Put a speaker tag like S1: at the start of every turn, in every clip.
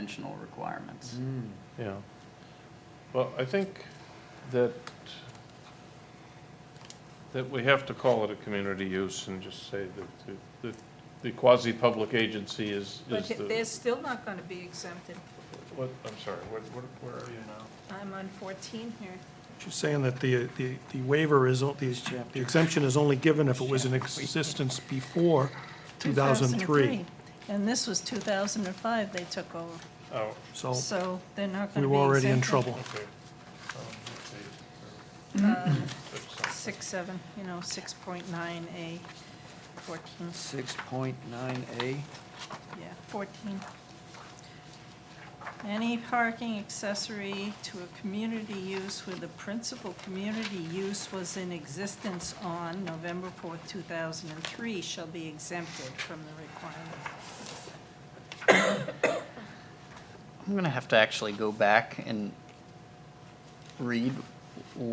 S1: dimensional requirements.
S2: Yeah. Well, I think that, that we have to call it a community use and just say that the- that the quasi-public agency is,
S3: But
S2: is
S3: th-
S2: the,
S3: they're still not going to be exempted.
S2: what, I'm sorry, what, what- where are you now?
S3: I'm on 14 here.
S4: She's saying that the, the the waiver is, o- the the exemption is only given if it was in existence before 2003.
S3: And this was 2005 they took over,
S2: Oh,
S4: So
S3: so they're not
S4: we
S3: going to be exempted.
S4: were already in trouble.
S2: okay. Um, let's see.
S3: Uh,
S2: That's something.
S3: Six, seven, you know, 6.9A, 14,
S1: Six point nine A.
S3: yeah, 14. Any parking accessory to a community use where the principal community use was in existence on November 4th, 2003 shall be exempted from the requirement.
S1: I'm gonna have to actually go back and read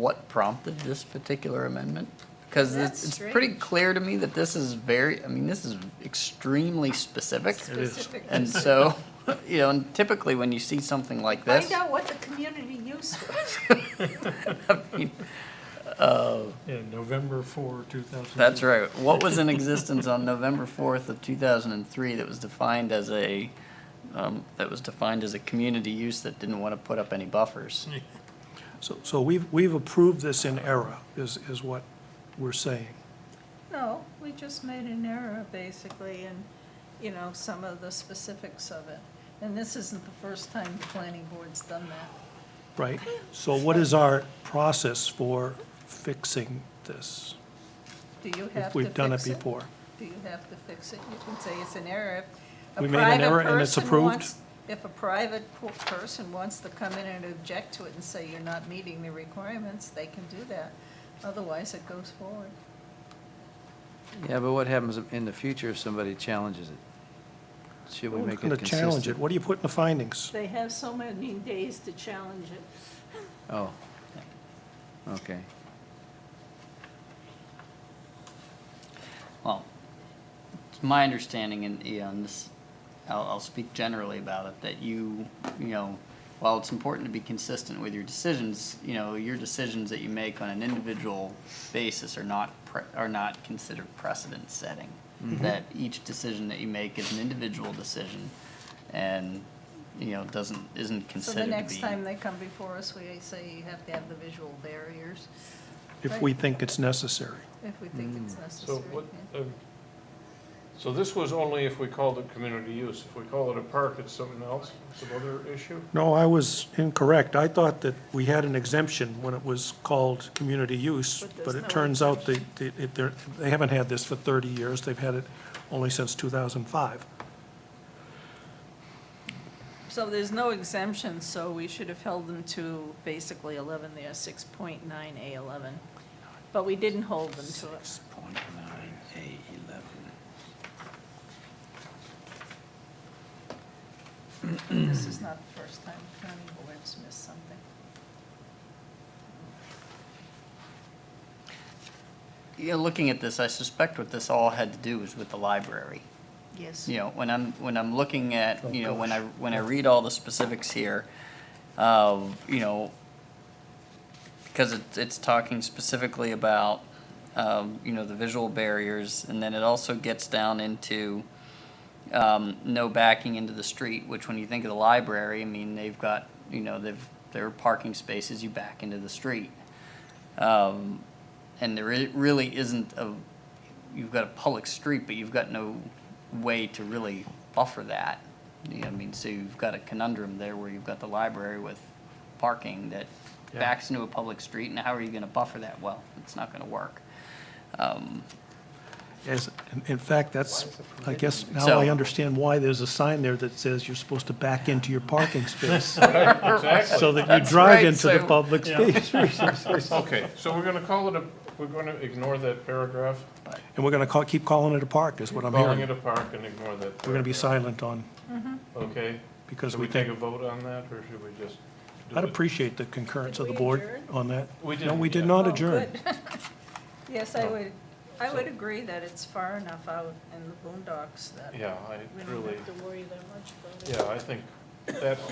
S1: what prompted this particular amendment. Because it's,
S3: That's
S1: it's pretty
S3: strange.
S1: clear to me that this is very, I mean, this is extremely specific.
S4: is.
S3: Specific.
S1: And so, you know, and typically when you see something like this,
S3: Find out what the community use was.
S4: Yeah, November 4, 2003.
S1: that's right. What was in existence on November fourth of two thousand and three that was defined as a, um, that was defined as a community use that didn't want to put up any buffers?
S4: So, so we've, we've approved this in error, is, is what we're saying.
S3: No, we just made an error, basically, in, you know, some of the specifics of it. And this isn't the first time the planning board's done that.
S4: Right. So what is our process for fixing this?
S3: Do you have
S4: If
S3: to
S4: we've done it
S3: fix
S4: before?
S3: Do you have to fix it? You can say it's an error. If a
S4: We made an
S3: private
S4: error and it's
S3: person
S4: approved?
S3: wants- If a private po- person wants to come in and object to it and say you're not meeting the requirements, they can do that. Otherwise, it goes forward.
S5: Yeah, but what happens in the future if somebody challenges it? Should we
S4: No one's
S5: make it
S4: gonna challenge it.
S5: consistent?
S4: What do you put in the findings?
S3: They have so many days to challenge it.
S5: Oh. Okay.
S1: Well, it's my understanding, and, you know, and this, I'll, I'll speak generally about it, that you, you know, while it's important to be consistent with your decisions, you know, your decisions that you make on an individual basis are not, pre- are not considered precedent setting. That each decision that you make is an individual decision, and, you know, doesn't, isn't
S3: So
S1: considered
S3: the
S1: to be.
S3: next time they come before us, we say you have to have the visual barriers
S4: If we think it's necessary.
S3: if we think it's
S2: Mm. So
S3: necessary.
S2: what,
S3: yeah.
S2: um, so this was only if we called it community use. If we call it a park, it's something else, some other issue?
S4: No, I was incorrect. I thought that we had an exemption when it was called community use,
S3: But there's
S4: but
S3: no
S4: it turns out they, they, it- they're- they haven't had this for 30 years. They've had it only since 2005.
S3: So there's no exemption, so we should have held them to basically 11 there, 6.9A11. But we didn't hold them to it.
S5: Six point nine eight eleven.
S3: This is not the first time the planning board's missed something.
S1: You know, looking at this, I suspect what this all had to do was with the library.
S3: Yes.
S1: you know, when I'm, when I'm looking at, you know, when I, when I read all the specifics here, uh, you know, because it's, it's talking specifically about, um, you know, the visual barriers, and then it also gets down into, um, no backing into the street, which when you think of the library, I mean, they've got, you know, they've, there are parking spaces, you back into the street. Um, and there i- really isn't a, you've got a public street, but you've got no way to really buffer that. You know, I mean, so you've got a conundrum there where you've got the library with parking that
S4: Yeah.
S1: backs into a public street, and how are you gonna buffer that? Well, it's not gonna work. Um,
S4: As, in- in fact, that's, I guess, now
S1: So-
S4: I understand why there's a sign there that says you're supposed to back into your parking space so
S2: Exactly.
S4: that you
S1: That's
S4: drive
S1: right,
S4: into the
S1: so-
S4: public space.
S2: Okay, so we're gonna call it a, we're gonna ignore that paragraph,
S4: And we're going to call, keep calling it a park, is what I'm
S2: calling
S4: hearing.
S2: it
S4: We're
S2: a park and ignore that.
S4: going to be
S2: paragraph.
S4: silent on,
S2: Okay,
S4: because
S2: should
S4: we
S2: we take
S4: think,
S2: a vote on that, or should we just? do
S4: I'd
S2: it?
S4: appreciate the concurrence of the
S3: Did we
S4: board
S3: adjourn?
S4: on that.
S2: We
S4: No,
S2: didn't
S4: we did
S2: yet.
S4: not
S3: Oh,
S4: adjourn.
S3: good. Yes, I would, I would agree that it's far enough out in the boondocks that
S2: Yeah,
S3: we
S2: I
S3: don't
S2: really,
S3: have to worry that much about it.
S2: yeah, I think that